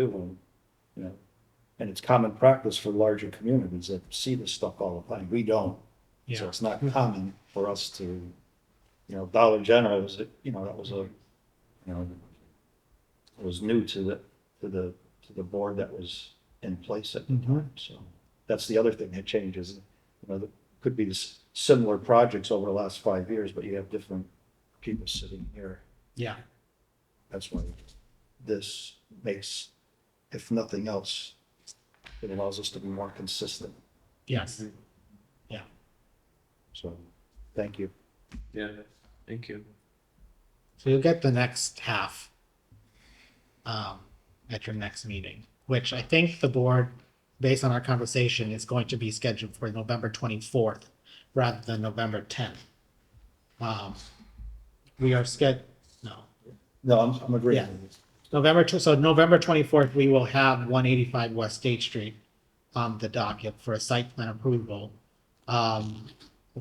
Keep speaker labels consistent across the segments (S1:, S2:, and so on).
S1: do them, you know. And it's common practice for larger communities that see this stuff all the time. We don't. So
S2: Yeah,
S1: it's not common for us to, you know, Dollar General was, you know, that was a, you know, it was new to the, to the, to the board that was in place at the
S2: Mhm.
S1: time, so. That's the other thing that changes, you know, there could be s- similar projects over the last five years, but you have different people sitting here.
S2: yeah,
S1: That's why this makes, if nothing else, it allows us to be more consistent,
S2: yes.
S1: so, thank you.
S3: Yeah, thank you.
S2: So you'll get the next half um, at your next meeting, which I think the board, based on our conversation, is going to be scheduled for November twenty-fourth rather than November tenth. Um, we are sched, no,
S1: No, I'm, I'm agreeing
S2: Yeah.
S1: with you.
S2: November, tw- so November twenty-fourth, we will have one eighty-five West State Street on the docket for a site plan approval. Um,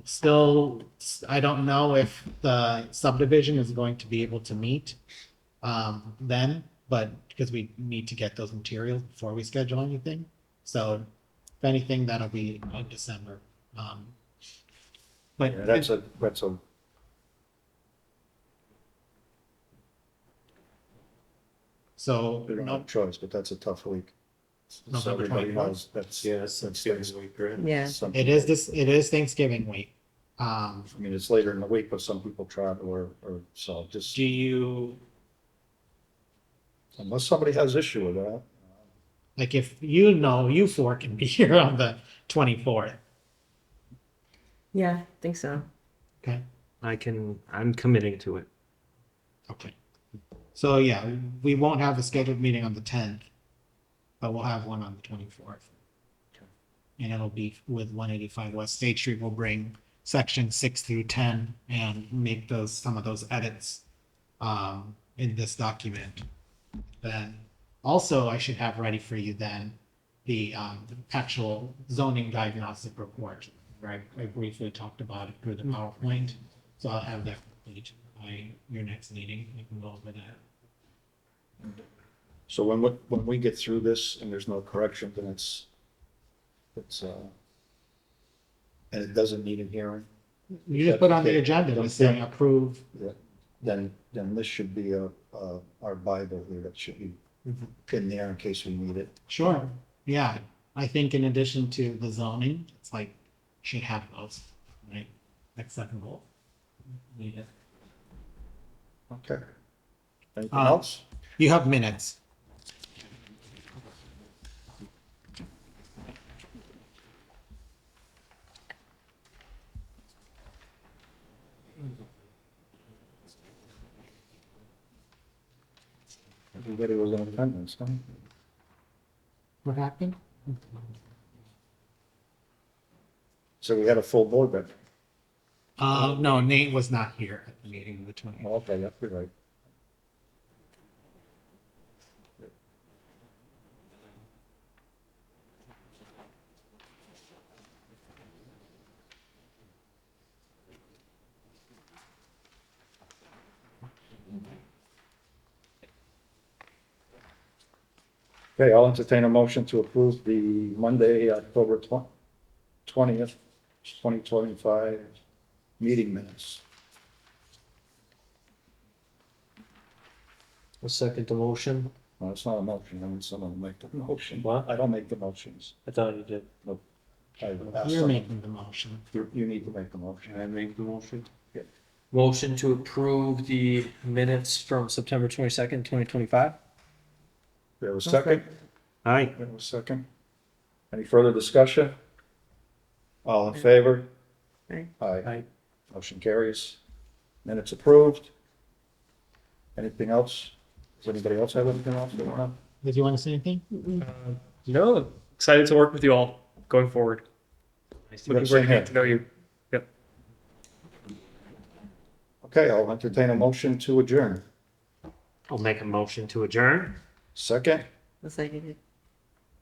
S2: still, s- I don't know if the subdivision is going to be able to meet um, then, but, because we need to get those materials before we schedule anything. So if anything, that'll be in December. Um, but
S1: Yeah, that's a, that's a.
S2: so,
S1: We don't
S2: no-
S1: have a choice, but that's a tough week. So
S2: November
S1: everybody
S2: 24th.
S1: knows That's.
S3: Yeah, that's Thanksgiving week, right?
S4: Yeah.
S1: something-
S2: it is this, it is Thanksgiving week. Um,
S1: I mean, it's later in the week, but some people travel or, or so just,
S2: do you,
S1: unless somebody has issue with that.
S2: Like if you know you four can be here on the twenty fourth.
S4: Yeah, I think so.
S2: Okay.
S3: I can, I'm committing to it.
S2: Okay. So yeah, we won't have a scheduled meeting on the tenth, but we'll have one on the twenty fourth. And it'll be with one eighty five West State Street. We'll bring section six through ten and make those, some of those edits um, in this document. Then also I should have ready for you then the um, actual zoning diagnostic report. Right, I briefly talked about it through the PowerPoint, so I'll have that complete by your next meeting. We can go over that.
S1: So when, we- when we get through this and there's no correction, then it's, it's, uh, and it doesn't need a hearing,
S2: You just put on the agenda, just saying approve.
S1: then, then this should be a, uh, our Bible here that should be in there in case we need it.
S2: Sure, yeah. I think in addition to the zoning, it's like should have those, right? Acceptable. Yeah.
S1: Okay. Anything
S2: Uh,
S1: else?
S2: You have minutes.
S1: Everybody was in attendance, huh?
S2: What happened?
S1: So we had a full board then.
S2: Uh, no, Nate was not here at the meeting of the twenty.
S1: Well, Okay, that's good, right. Okay, I'll entertain a motion to approve the Monday, October twentieth, twenty twenty-five meeting minutes.
S3: I'll second the motion.
S1: Well, it's not a motion, I mean, someone will make the motion.
S3: What?
S1: I don't make the motions.
S3: I thought you did.
S1: I ask
S2: You're
S1: someone.
S2: making the motion.
S1: You, you need to make the motion.
S3: I make the motion?
S1: Yeah.
S3: Motion to approve the minutes from September twenty-second, twenty twenty-five?
S1: We have a second?
S3: Aye.
S1: We have a second? Any further discussion? All in favor?
S4: Aye.
S1: Aye.
S3: Aye.
S1: Motion carries. Minutes approved. Anything else? Does anybody else have anything else they want
S2: Did you want to say anything?
S5: No, excited to work with you all going forward.
S1: to?
S5: Looking forward to getting to know you.
S1: Okay, I'll entertain a motion to adjourn.
S3: I'll make a motion to adjourn.
S1: Second?
S4: That's like it.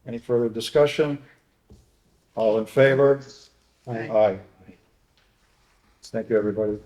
S1: Any further discussion? All in favor?
S4: Aye.
S1: Aye. Thank you, everybody.